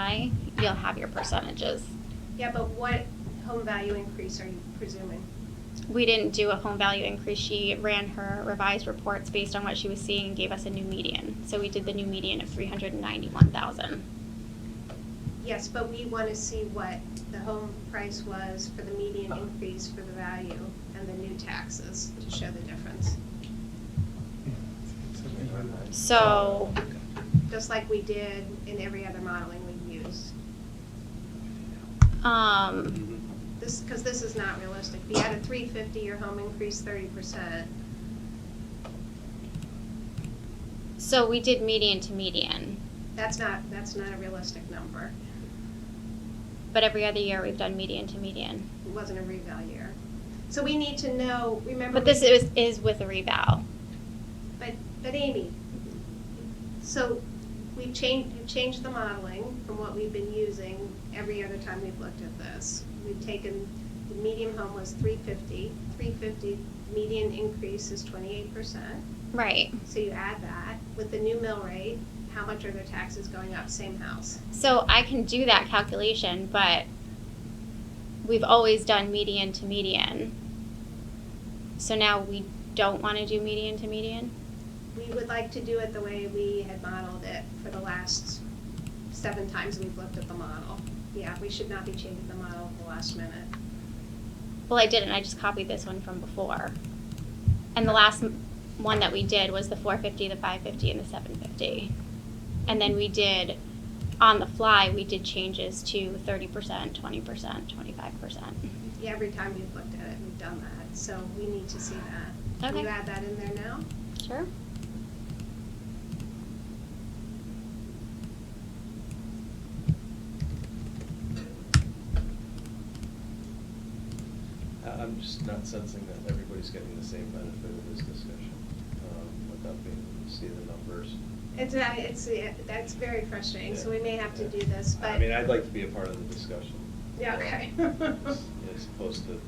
July, you'll have your percentages. Yeah, but what home value increase are you presuming? We didn't do a home value increase. She ran her revised reports based on what she was seeing and gave us a new median. So we did the new median of three hundred and ninety-one thousand. Yes, but we want to see what the home price was for the median increase for the value and the new taxes to show the difference, So just like we did in every other modeling we used. um, This, because this is not realistic. If you had a three fifty, your home increased thirty percent. so we did median to median, That's not, that's not a realistic number. but every other year we've done median to median. It wasn't a reval year. So we need to know, remember. But this is is with a revow. But, but Amy, so we've changed, we've changed the modeling from what we've been using every other time we've looked at this. We've taken, the median home was three fifty. Three fifty median increase is twenty-eight percent. Right. So you add that with the new mill rate, how much are their taxes going up, same house? So I can do that calculation, but we've always done median to median. So now we don't want to do median to median? We would like to do it the way we had modeled it for the last seven times we've looked at the model. Yeah, we should not be changing the model at the last minute. Well, I didn't. I just copied this one from before. And the last m- one that we did was the 450, the 550, and the 750. And then we did, on the fly, we did changes to 30%, 20%, 25%. Yeah, Every time we've looked at it, we've done that, so we need to see that. Can Okay. you add that in there now? Sure. I- I'm just not sensing that everybody's getting the same benefit of this discussion um, without being able to see the numbers. It's, uh, it's, uh, that's very frustrating, so we may have to do this, I but, mean, I'd like to be a part of the discussion. yeah, okay. As opposed to, you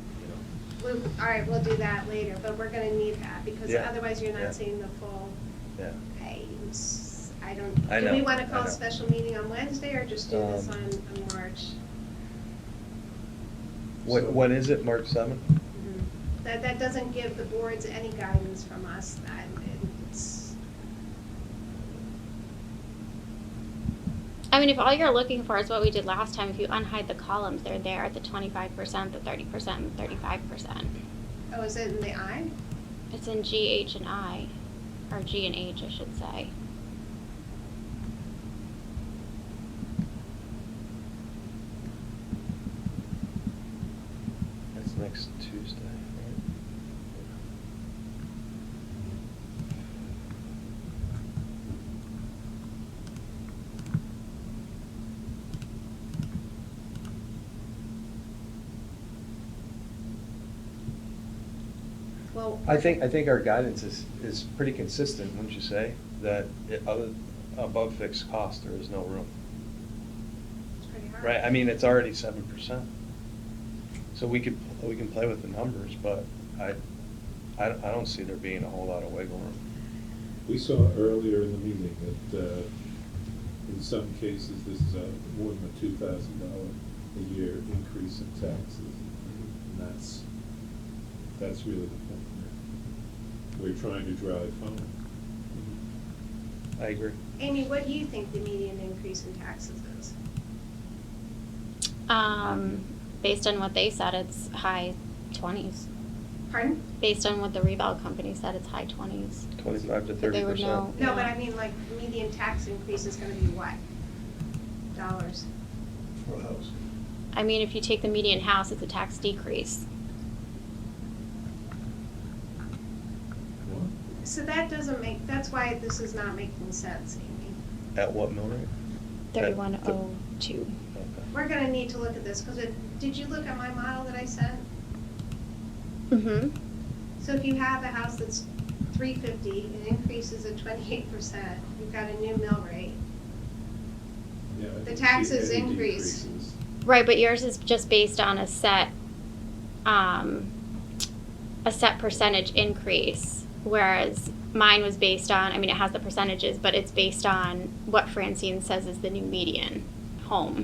know, We, all right, we'll do that later, but we're gonna need that, because Yeah, otherwise you're yeah. not seeing the full, yeah. I, I I don't, do we know, wanna I call a know. special meeting on Wednesday, or just do this on, Um, on March? When- when is it, March seventh? Mm-hmm. That, that doesn't give the boards any guidance from us, that, it's, I mean, if all you're looking for is what we did last time, if you unhide the columns, they're there the 25%, the 30%, and 35%. oh, is it in the eye? It's in G, H, and I, or G and H, I should say. That's next Tuesday, right? Well. I think, I think our guidance is, is pretty consistent, wouldn't you say? That it- other, above fixed cost, there is no room, It's pretty hard. right? I mean, it's already seven percent. So we could, we can play with the numbers, but I, I don't- I don't see there being a whole lot of wiggle room. We saw earlier in the meeting that uh, in some cases, this is a more than a two thousand dollar a year increase in taxes. And that's, that's really the point we're, we're trying to drive home. I agree. Amy, what do you think the median increase in taxes is? Um, based on what they said, it's high 20s. Pardon? Based on what the Reval company said, it's high 20s. Twenty-five to But thirty they would know. percent. No, but I mean, like, median tax increase is gonna be what? Dollars. For a house. I mean, if you take the median house, it's a tax decrease. What? So that doesn't make, that's why this is not making sense, Amy. At what mill rate? That- oh. 3102. Okay. We're gonna need to look at this, because it, did you look at my model that I sent? Mm-hmm. So if you have a house that's three fifty, it increases at twenty-eight percent, you've got a new mill rate. Yeah, I didn't see taxes any increase. decreases. Right, but yours is just based on a set, um, a set percentage increase, whereas mine was based on, I mean, it has the percentages, but it's based on what Francine says is the new median home.